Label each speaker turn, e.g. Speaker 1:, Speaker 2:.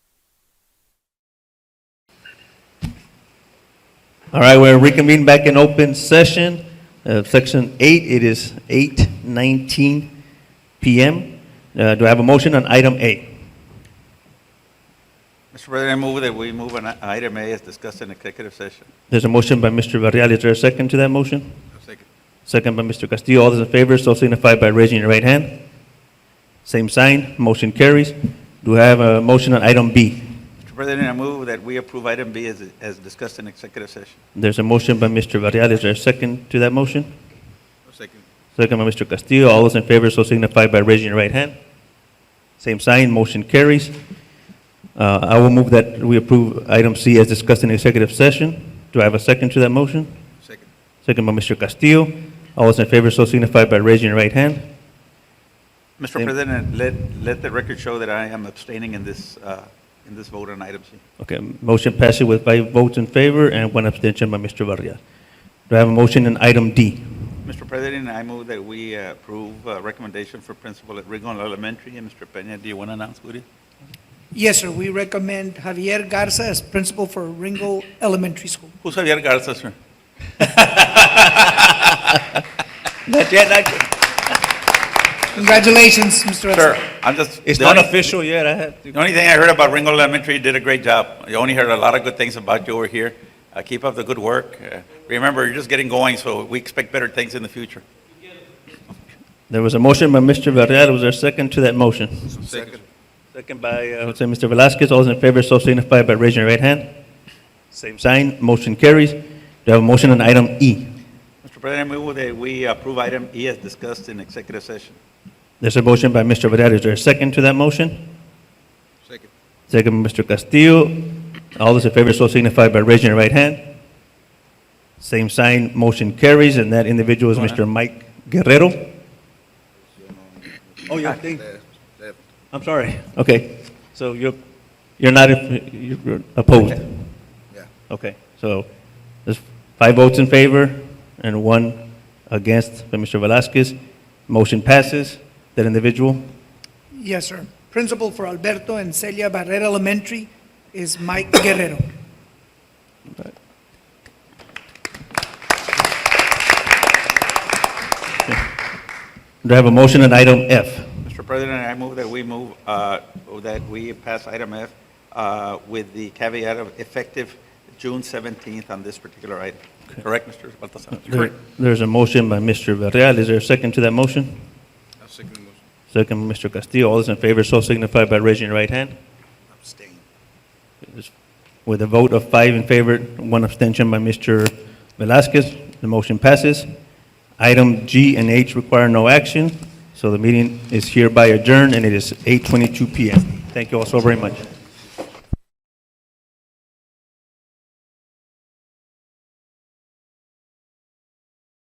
Speaker 1: All right, we're reconvening back in open session, Uh, section eight, it is eight nineteen PM. Uh, Do I have a motion on item A?
Speaker 2: Mr. President, I move that we move on item A as discussed in executive session.
Speaker 1: There's a motion by Mr. Varela, is there a second to that motion?
Speaker 2: Second.
Speaker 1: Second by Mr. Castillo, all those in favor, so signify by raising your right hand. Same sign, motion carries. Do I have a motion on item B?
Speaker 2: Mr. President, I move that we approve item B as, as discussed in executive session.
Speaker 1: There's a motion by Mr. Varela, is there a second to that motion?
Speaker 2: Second.
Speaker 1: Second by Mr. Castillo. All those in favor so signify by raising your right hand. Same sign, motion carries. Uh, I will move that we approve item C as discussed in executive session. Do I have a second to that motion?
Speaker 2: Second.
Speaker 1: Second by Mr. Castillo. All those in favor so signify by raising your right hand.
Speaker 2: Mr.
Speaker 1: Same.
Speaker 2: President, let, let the record show that I am abstaining in this, uh, in this vote on item C.
Speaker 1: Okay, motion passes with five votes in favor and one abstention by Mr. Varela. Do I have a motion on item D?
Speaker 2: Mr. President, I move that we uh, approve uh, recommendation for principal at Rigon Elementary. And Mr. Peña, do you want to announce who it is?
Speaker 3: Yes, sir, we recommend Javier Garza as principal for Ringo Elementary School.
Speaker 2: Who's Javier Garza, sir?
Speaker 1: Not yet, not yet.
Speaker 3: Congratulations, Mr.
Speaker 2: Sir,
Speaker 3: Garza.
Speaker 2: I'm just.
Speaker 1: It's
Speaker 2: the only-
Speaker 1: not official yet, I have to.
Speaker 2: The only thing I heard about Ringo Elementary, you did a great job. I only heard a lot of good things about you over here. Uh, keep up the good work. Uh, remember, you're just getting going, so we expect better things in the future.
Speaker 1: There was a motion by Mr. Varela. Was there a second to that motion? Second by, uh, Jose Mr. Velazquez, all those in favor, so signify by raising your right hand. Same sign, motion carries. Do you have a motion on item E?
Speaker 2: Mr. President, I move that we approve item E as discussed in executive session.
Speaker 1: There's a motion by Mr. Varela, is there a second to that motion?
Speaker 2: Second.
Speaker 1: Second by Mr. Castillo, all those in favor, so signify by raising your right hand. Same sign, motion carries, and that individual is Mr. Mike Guerrero. Oh, your thing? I'm sorry, okay, so you're, you're not, you're opposed?
Speaker 4: Yeah.
Speaker 1: Okay, so there's five votes in favor and one against by Mr. Velazquez. Motion passes. That individual,
Speaker 3: Yes, sir. Principal for Alberto and Celia Barrera Elementary is Mike Guerrero.
Speaker 1: do I have a motion on item F?
Speaker 2: Mr. President, I move that we move, uh, that we pass item F uh, with the caveat of effective June 17th on this particular item. Correct, Mr. Baltasar?
Speaker 1: There- There's a motion by Mr. Varela. Is there a second to that motion? Second, by Mr. Castillo. All those in favor, so signify by raising your right hand.
Speaker 4: Abstain.
Speaker 1: With a vote of five in favor, one abstention by Mr. Velazquez, the motion passes. Item G and H require no action, so the meeting is hereby adjourned, and it is 8:22 PM. Thank you all so very much.